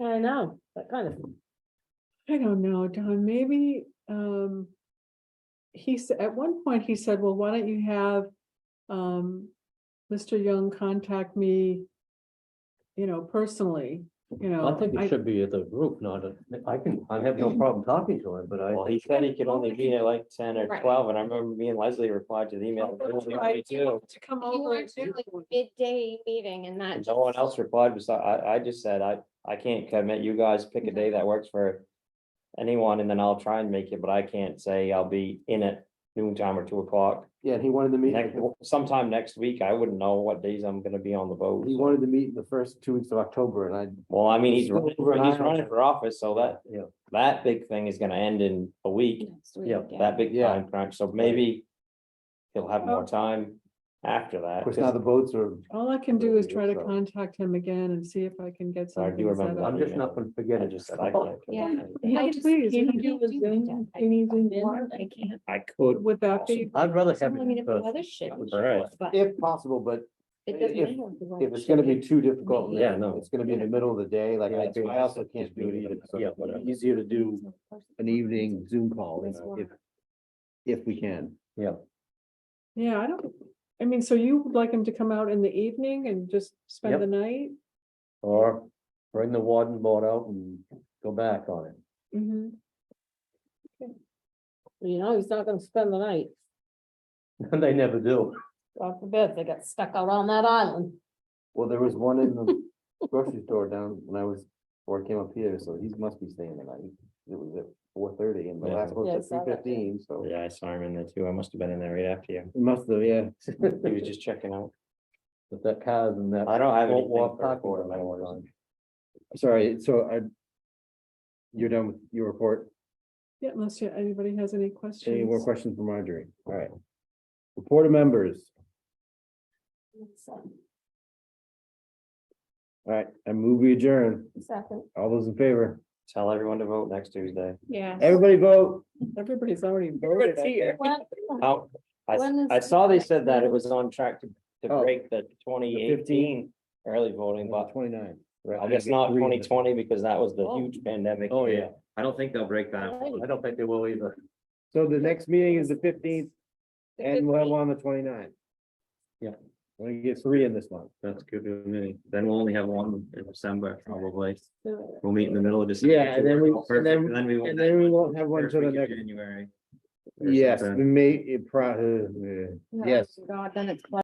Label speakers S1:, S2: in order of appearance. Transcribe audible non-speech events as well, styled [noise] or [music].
S1: I know, that kind of,
S2: I don't know, Don, maybe, um. He said, at one point, he said, well, why don't you have, um, Mr. Young contact me? You know, personally, you know.
S3: I think
S2: I-
S3: it should be at the group, not at,
S4: I can, I have no problem talking to him, but I.
S5: Well, he said he could only be there like ten or
S6: Right.
S5: twelve, and I remember me and Leslie replied to the email. "They only want me
S2: Right, you
S5: two."
S2: want To come
S6: If you
S2: over.
S6: weren't
S2: and do
S6: doing like
S2: one.
S6: midday meeting and that.
S5: And No one else replied, but I, I just said, I, I can't commit, you guys pick a day that works for anyone, and then I'll try and make it, but I can't say I'll be in at noon time or two o'clock.
S4: Yeah, and he wanted to meet,
S5: Next, sometime next week, I wouldn't know what days I'm gonna be on the boat.
S4: he wanted to meet the first two weeks of October and I.
S5: Well, I mean, he's,
S4: Still
S5: running-
S4: over an
S5: he's
S4: hour.
S5: running for office, so that,
S4: Yeah,
S5: that big thing is gonna end in a week,
S6: next week,
S4: yeah,
S5: that big
S4: Yeah.
S5: time crunch, so maybe he'll have more time after that.
S4: of course, now the boats are,
S2: All I can do is try to
S4: So-
S2: contact him again and see if I can get
S5: I do
S2: something set
S5: remember
S2: up.
S4: I'm just not gonna forget
S5: I
S4: it.
S5: just, I can't.
S6: Yeah.
S2: Yeah,
S6: I just
S2: please, you
S6: can't do
S2: can do a
S6: that.
S2: Zoom,
S6: I-
S2: you need Zoom
S6: Zoom
S2: one.
S6: I can't.
S5: I could.
S2: Would that be,
S4: I'd rather have
S6: I mean,
S4: it
S6: if the
S4: first,
S6: weather shit was
S5: All right.
S6: shit, but
S4: if possible, but
S6: it doesn't
S4: if-
S6: matter the weather
S4: if it's gonna
S6: shit
S4: be
S6: is.
S4: too difficult,
S3: Yeah,
S4: yeah,
S3: no.
S4: no, it's gonna be in the middle of the day, like
S5: Yeah,
S4: I
S5: that's why
S4: I
S5: I
S4: also
S5: said
S4: can't
S5: just
S4: do it
S5: do it
S4: either.
S5: at
S4: so
S5: some point.
S4: it's Easier to do an evening Zoom call
S6: That's why.
S4: if, if we can.
S2: yeah, I don't, I mean, so you would like him to come out in the evening and just spend
S3: Yep.
S2: the night?
S3: or bring the warden board out and go back on it.
S4: [laughs]
S2: Mhm.
S1: you know, he's not gonna spend the night.
S3: They never do.
S1: God forbid they got stuck out on that island.
S4: Well, there was one in the grocery store down when I was, or came up here, so he must be staying the night. It was at four thirty and the
S5: Yeah.
S4: last one
S1: Yeah, I
S4: was
S1: saw
S4: at
S1: that.
S4: three fifteen, so.
S5: Oh, Yeah, I saw him in there too. I must have been in there right after you.
S4: Must have, yeah.
S5: He was just checking out.
S3: But that cars and that.
S5: I don't have
S3: Won't
S5: anything
S3: walk
S5: for a
S3: back
S5: quarter
S3: on
S5: mile
S3: that
S5: or
S3: one.
S5: something.
S4: Sorry, so I. You're done with your report.
S2: Yeah, unless you- anybody has any
S4: Any more
S2: questions.
S4: questions for Marjorie? All right. Report of members.
S6: So,
S4: All right, I move we adjourn.
S6: Second,
S4: All those in favor?
S5: Tell everyone to vote next Tuesday.
S6: yeah.
S4: Everybody vote.
S2: Everybody's already voted. I think.
S6: When-
S5: How, I,
S6: When is-
S5: I saw they said that it was on track to, to
S4: Oh.
S5: break the twenty eighteen early voting, but
S4: Twenty-nine.
S5: I guess not
S4: Three.
S5: twenty twenty because that was the
S3: Oh.
S5: huge pandemic.
S3: Oh, yeah.
S5: I don't think they'll break that. one.
S3: I don't think they will either.
S4: So the next meeting is the fifteenth
S6: the
S4: and we'll have
S6: 15th.
S4: one on the 29th.
S3: Yeah.
S4: We're gonna get three in this month.
S3: That's good, with me. then we'll only have one in December, probably.
S2: So,
S3: We'll meet in the middle of December. Oh,
S4: Yeah, and then we- and
S3: Perfect,
S4: then-
S3: Then we. won't
S4: And
S3: have
S4: then we won't have one
S3: first
S4: till the
S3: week of
S4: next.
S3: January. or
S4: Yes,
S3: something.
S4: we may, it probably,
S6: Oh,
S4: yes.
S6: God, then it's.